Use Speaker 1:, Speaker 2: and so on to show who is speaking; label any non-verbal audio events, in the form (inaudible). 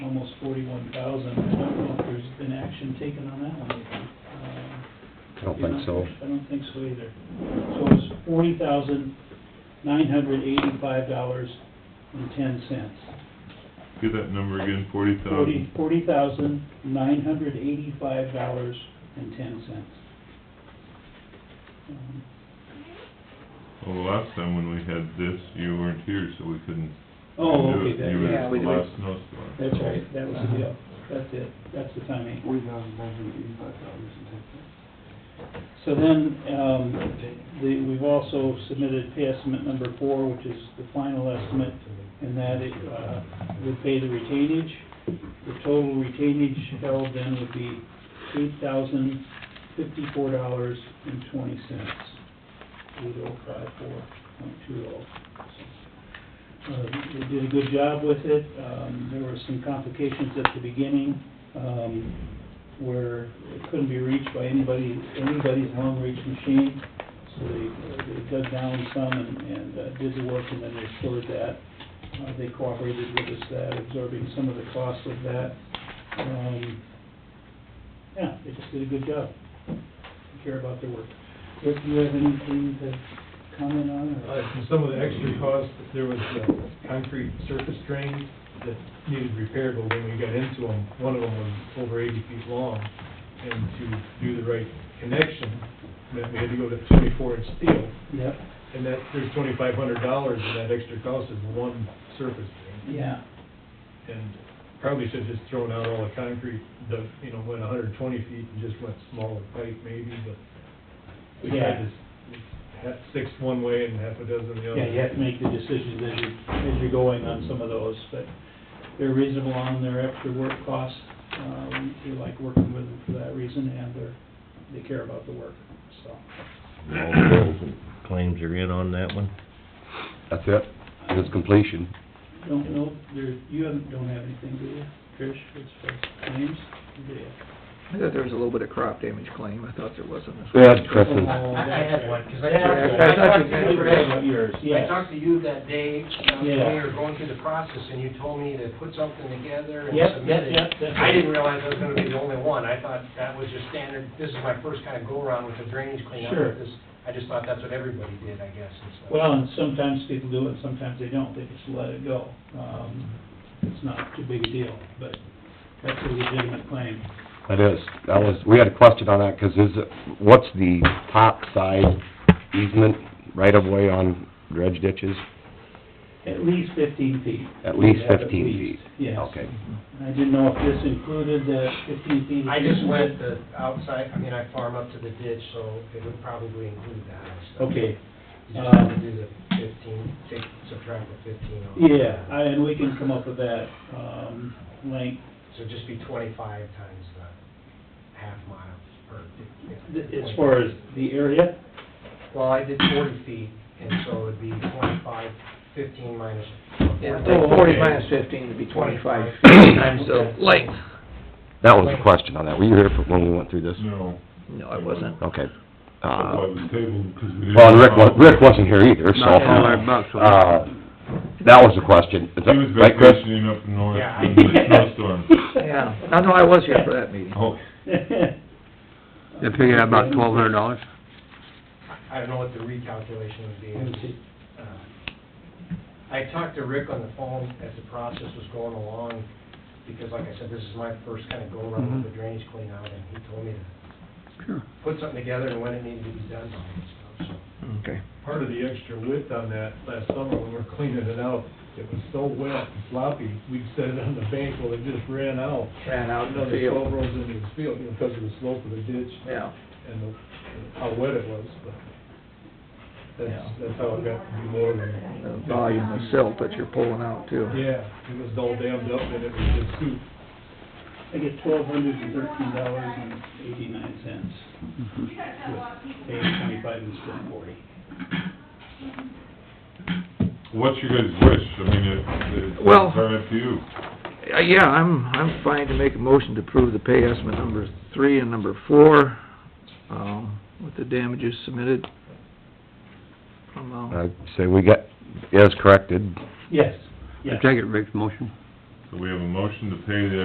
Speaker 1: almost forty-one thousand. I don't know if there's been action taken on that one. Um,
Speaker 2: I don't think so.
Speaker 1: I don't think so either. So it's forty thousand, nine hundred eighty-five dollars and ten cents.
Speaker 3: Get that number again, forty
Speaker 1: Forty,
Speaker 3: thousand.
Speaker 1: forty thousand, nine hundred eighty-five dollars and ten cents. Um,
Speaker 3: Well, the last time when we had this, you weren't here, so we couldn't.
Speaker 1: Oh,
Speaker 3: do
Speaker 1: okay,
Speaker 3: it.
Speaker 1: that,
Speaker 3: You were
Speaker 1: yeah,
Speaker 3: at the
Speaker 4: we did.
Speaker 3: last snowstorm.
Speaker 1: that's right, that was the deal, that's it, that's the timing.
Speaker 4: Forty thousand nine hundred eighty-five dollars and ten cents.
Speaker 1: So then, um, the, we've also submitted pay estimate number four, which is the final estimate, and that it, uh, would pay the retainage. The total retainage held then would be eight thousand fifty-four dollars and twenty cents. Eight oh five four point two oh. Uh, they did a good job with it, um, there were some complications at the beginning, um, where it couldn't be reached by anybody, anybody's long-reach machine. So they, uh, they dug down some and, and uh, did the work and then they stored that. Uh, they cooperated with us that, absorbing some of the cost of that. Um, yeah, they just did a good job. They Care about their work. Rick, do you have anything to comment on or?
Speaker 5: Uh, for some of the extra costs, there was uh, concrete surface drains that needed repair, but when we got into them, one of them was over eighty feet long. And to do the right connection, meant we had to go to twenty-four inch steel.
Speaker 1: Yep,
Speaker 5: And that, there's twenty-five hundred dollars in that extra cost of one surface drain.
Speaker 1: yeah,
Speaker 5: And probably should have just thrown out all the concrete, the, you know, went hundred and twenty feet and just went smaller pipe maybe, but we
Speaker 1: Yeah.
Speaker 5: tried to s- have six one way and half a dozen the other.
Speaker 1: yeah, you have to make the decisions as you're, as you're going on some of those, but they're reasonable on their extra work costs. Uh, we we like working with them for that reason and they're, they care about the work, so.
Speaker 6: All the bills and claims are in on that one?
Speaker 2: That's it, it is completion.
Speaker 1: Don't know, there, you haven't, don't have anything, do you, Trish, as far as claims? Do you?
Speaker 4: I thought there was a little bit of crop damage claim, I thought there wasn't.
Speaker 2: Yeah, Chris is,
Speaker 1: Oh,
Speaker 7: I I had one, because I
Speaker 4: Yeah,
Speaker 7: talked
Speaker 4: I
Speaker 7: to, I
Speaker 4: thought
Speaker 7: talked
Speaker 4: you
Speaker 7: to
Speaker 4: said
Speaker 7: you,
Speaker 4: you
Speaker 7: Rick.
Speaker 1: About yours,
Speaker 7: I
Speaker 1: yes.
Speaker 7: talked to you that day, um, when
Speaker 1: Yeah.
Speaker 7: we were going through the process, and you told me to put something together and
Speaker 1: Yep,
Speaker 7: submit
Speaker 1: yep,
Speaker 7: it.
Speaker 1: yep, that's
Speaker 7: I
Speaker 1: right.
Speaker 7: didn't realize I was gonna be the only one, I thought that was just standard, this is my first kind of go-around with the drainage cleanup.
Speaker 1: Sure.
Speaker 7: This- I just thought that's what everybody did, I guess, and stuff.
Speaker 1: Well, and sometimes people do it, sometimes they don't, they just let it go. Um, it's not too big a deal, but that's a legitimate claim.
Speaker 2: it is, that was, we had a question on that, 'cause is, it- what's the top side easement right-of-way on dredge ditches?
Speaker 1: At least fifteen feet.
Speaker 2: At least
Speaker 1: Yeah,
Speaker 2: fifteen feet?
Speaker 1: least, Yes.
Speaker 2: Okay.
Speaker 1: I didn't know if this included the fifteen feet.
Speaker 7: I just went the outside, I mean, I farm up to the ditch, so it would probably include that and stuff.
Speaker 1: Okay,
Speaker 7: You just have to
Speaker 1: um,
Speaker 7: do the fifteen, take, subtract the fifteen off.
Speaker 1: yeah, I- and we can come up with that, um, length.
Speaker 7: So just be twenty-five times the half mile, or...
Speaker 1: Th- As far as the area,
Speaker 7: Well, I did forty feet, and so it'd be twenty-five, fifteen minus...
Speaker 4: Yeah,
Speaker 7: Oh,
Speaker 4: like forty
Speaker 7: okay.
Speaker 4: minus fifteen would be twenty-five
Speaker 7: Okay.
Speaker 4: times the length.
Speaker 2: That was the question on that, were you here for, when we went through this?
Speaker 3: No,
Speaker 4: No, I wasn't.
Speaker 2: Okay.
Speaker 3: that's why it
Speaker 2: Uh,
Speaker 3: was tabled, because we didn't.
Speaker 2: well, and Rick wa, Rick wasn't here either, so,
Speaker 4: Not all our bucks.
Speaker 2: uh, that was the question, is
Speaker 3: He
Speaker 2: that,
Speaker 3: was
Speaker 2: right, Chris?
Speaker 3: vacationing up north
Speaker 7: Yeah, I-
Speaker 3: in the snowstorm.
Speaker 1: (laughs)
Speaker 4: Yeah, no, no, I was here for that meeting.
Speaker 3: Oh,
Speaker 1: They figured out about twelve hundred dollars.
Speaker 7: I don't know what the recalculation would be. Uh, I talked to Rick on the phone as the process was going along, because like I said, this is my first kind of go-around with the drainage cleanout, and he told me to put something together and when it needed to be done, and all that stuff, so...
Speaker 4: Okay.
Speaker 5: part of the extra width on that last summer when we were cleaning it out, it was so wet and sloppy, we'd set it on the bank, well, it just ran out.
Speaker 4: Ran out in the
Speaker 5: Another
Speaker 4: field.
Speaker 5: twelve rolls into the field, you know, because of the slope of the ditch
Speaker 4: Yeah,
Speaker 5: and the- how wet it was, but that's,
Speaker 4: Yeah.
Speaker 5: that's how it got to be more than.
Speaker 4: the volume of silt that you're pulling out too.
Speaker 5: Yeah, it was all dammed up and it was just soup.
Speaker 1: I get twelve hundred and thirteen dollars and eighty-nine cents. Paying twenty-five and spending forty.
Speaker 3: what's your guys' wish? I mean, it, it's
Speaker 4: Well-
Speaker 3: entirely up to you.
Speaker 4: Uh, Yeah, I'm, I'm fine to make a motion to approve the pay estimate number three and number four, um, with the damages submitted. um, Amount.
Speaker 2: I say we got, it is corrected,
Speaker 1: Yes, yes.
Speaker 8: I take it Rick's motion.
Speaker 3: So we have a motion to pay the